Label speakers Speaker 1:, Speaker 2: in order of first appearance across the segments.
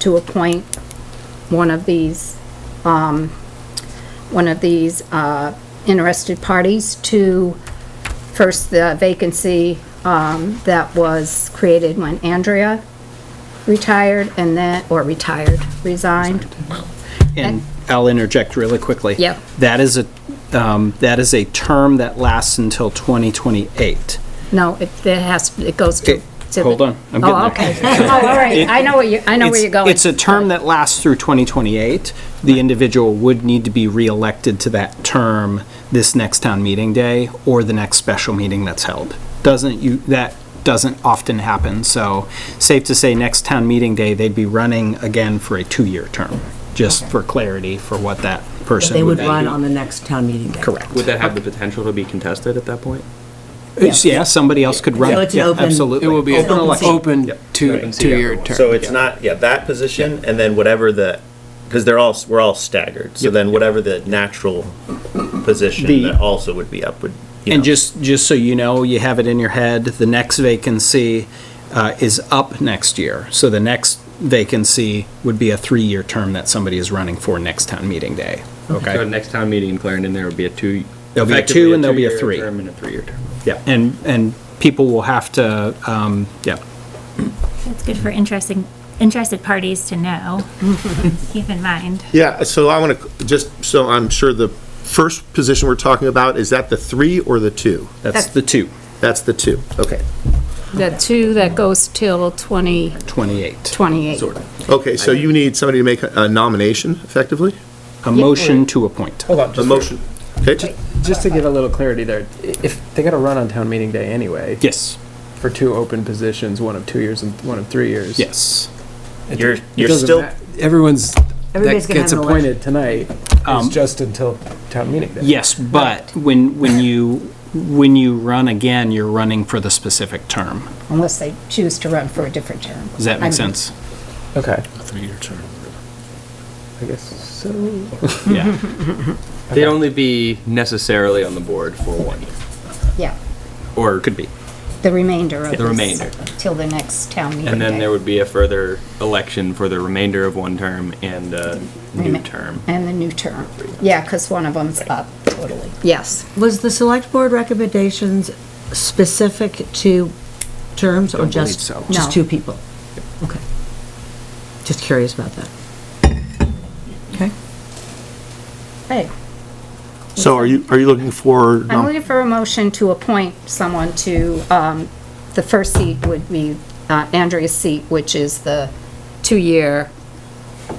Speaker 1: to appoint one of these, um, one of these, uh, interested parties to first the vacancy, um, that was created when Andrea retired and then, or retired, resigned.
Speaker 2: And I'll interject really quickly.
Speaker 1: Yeah.
Speaker 2: That is a, um, that is a term that lasts until 2028.
Speaker 1: No, it, it has, it goes to.
Speaker 2: It-
Speaker 1: to the-
Speaker 2: hold on, I'm getting
Speaker 1: Oh,
Speaker 2: there.
Speaker 1: okay. Oh, all right. I know where you, I know where
Speaker 2: It's-
Speaker 1: you're going.
Speaker 2: It's a term that lasts through 2028. The individual would need to be reelected to that term this next town meeting day or the next special meeting that's held. Doesn't you, that doesn't often happen, so safe to say, next town meeting day, they'd be running again for a two-year term, just for clarity for what that person
Speaker 3: They would
Speaker 2: be.
Speaker 3: run on the next town meeting day.
Speaker 2: Correct.
Speaker 4: Would that have the potential to be contested at that point?
Speaker 2: Yeah, somebody else could run.
Speaker 3: So it's an
Speaker 2: Yeah,
Speaker 3: open-
Speaker 2: Absolutely.
Speaker 5: It will be
Speaker 3: Open
Speaker 5: open,
Speaker 3: election.
Speaker 5: open two,
Speaker 4: Open to
Speaker 5: two-year
Speaker 4: everyone.
Speaker 5: term.
Speaker 6: So it's not, yeah, that position, and then whatever the, because they're all, we're all staggered, so then whatever the natural position
Speaker 2: The-
Speaker 6: that also would be up would, you know.
Speaker 2: And just, just so you know, you have it in your head, the next vacancy uh, is up next year. So the next vacancy would be a three-year term that somebody is running for next town meeting day.
Speaker 4: So
Speaker 2: Okay?
Speaker 4: next town meeting in Clarendon, there would be a two.
Speaker 2: There'll be a
Speaker 4: effectively
Speaker 2: two and there'll be a
Speaker 4: two-year
Speaker 2: three.
Speaker 4: Term and a three-year term.
Speaker 2: Yeah, and, and people will have to, um, yeah,
Speaker 7: It's good for interesting, interested parties to know. Keep in mind.
Speaker 8: Yeah, so I want to, just so I'm sure the first position we're talking about, is that the three or the two?
Speaker 2: that's the two,
Speaker 8: That's the two, okay.
Speaker 1: The two that goes till twenty
Speaker 2: 28.
Speaker 1: twenty-eight.
Speaker 8: Okay, so you need somebody to make a nomination effectively?
Speaker 2: A motion to appoint.
Speaker 8: A motion. Okay,
Speaker 9: Just to give a little clarity there, i- if they got to run on town meeting day anyway
Speaker 2: Yes,
Speaker 9: for two open positions, one of two years and one of three years.
Speaker 2: yes.
Speaker 9: it-
Speaker 6: You're-
Speaker 9: it
Speaker 6: you're
Speaker 9: doesn't
Speaker 6: still-
Speaker 9: ma- Everyone's,
Speaker 3: Everybody's
Speaker 9: that
Speaker 3: gonna
Speaker 9: gets
Speaker 3: have an election.
Speaker 9: appointed tonight is just until town meeting day.
Speaker 2: Yes, but when, when you, when you run again, you're running for the specific term.
Speaker 1: Unless they choose to run for a different term.
Speaker 2: Does that
Speaker 1: I mean,
Speaker 2: make sense?
Speaker 9: Okay,
Speaker 5: Three-year term.
Speaker 9: I guess so.
Speaker 2: Yeah.
Speaker 4: They'd only be necessarily on the board for one year,
Speaker 1: Yeah,
Speaker 4: or could be.
Speaker 1: the remainder of
Speaker 4: The
Speaker 1: this.
Speaker 4: remainder.
Speaker 1: Till the next town meeting.
Speaker 4: And then
Speaker 1: day.
Speaker 4: there would be a further election for the remainder of one term and a new
Speaker 1: Rema-
Speaker 4: term.
Speaker 1: And the new term. Yeah, because one of them's up. Totally. Yes.
Speaker 3: Was the select board recommendations specific to terms or just,
Speaker 2: so.
Speaker 1: No.
Speaker 3: just two people? Okay. Just curious about that. Okay.
Speaker 1: Hey,
Speaker 8: so are you, are you looking for,
Speaker 1: I'm
Speaker 8: nom-
Speaker 1: looking for a motion to appoint someone to, um, the first seat would be uh, Andrea's seat, which is the two-year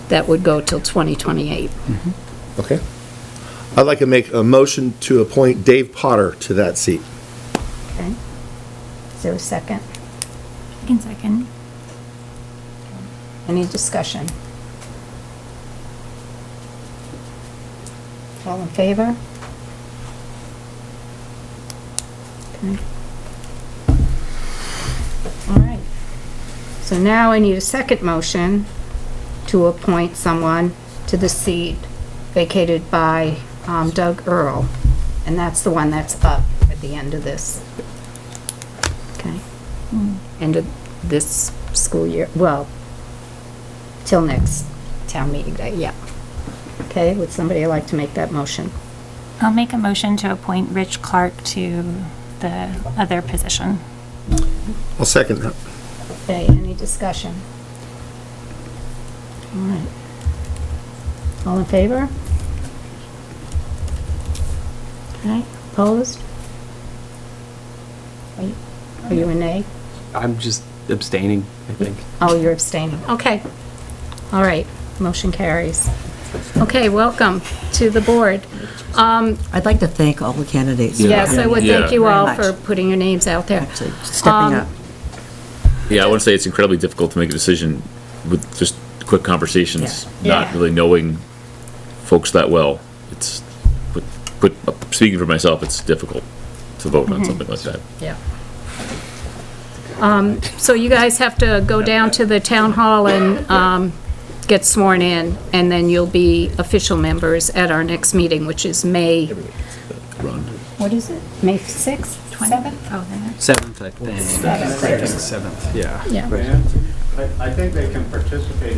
Speaker 1: that would go till 2028.
Speaker 8: okay. I'd like to make a motion to appoint Dave Potter to that seat.
Speaker 1: Okay. Is there a second?
Speaker 7: I can second.
Speaker 1: Any discussion? All in favor? Okay. All right. So now I need a second motion to appoint someone to the seat vacated by um, Doug Earl. And that's the one that's up at the end of this. Okay? End of this school year, well, till next town meeting day, yeah. Okay, would somebody like to make that motion?
Speaker 7: I'll make a motion to appoint Rich Clark to the other position.
Speaker 8: I'll second that.
Speaker 1: Okay, any discussion? All right. All in favor? Okay, opposed? Are you- Are you a nay?
Speaker 4: I'm just abstaining, I think.
Speaker 1: Oh, you're abstaining, okay. All right, motion carries. Okay, welcome to the board. Um,
Speaker 3: I'd like to thank all the candidates.
Speaker 1: Yes, I would thank you
Speaker 3: Very
Speaker 1: all
Speaker 3: much.
Speaker 1: for putting your names out there.
Speaker 3: Actually, stepping
Speaker 1: Um,
Speaker 3: up.
Speaker 10: Yeah, I would say it's incredibly difficult to make a decision with just quick conversations,
Speaker 1: Yeah.
Speaker 10: not
Speaker 1: Yeah.
Speaker 10: really knowing folks that well. It's, but, but speaking for myself, it's difficult to vote on something like that.
Speaker 1: Yeah. Um, So you guys have to go down to the town hall and um, get sworn in, and then you'll be official members at our next meeting, which is May... What is it? May 6th?
Speaker 7: 7th? Oh, the next.
Speaker 2: Seventh, I think. Seventh, yeah.
Speaker 1: Yeah.
Speaker 11: I, I think they can participate in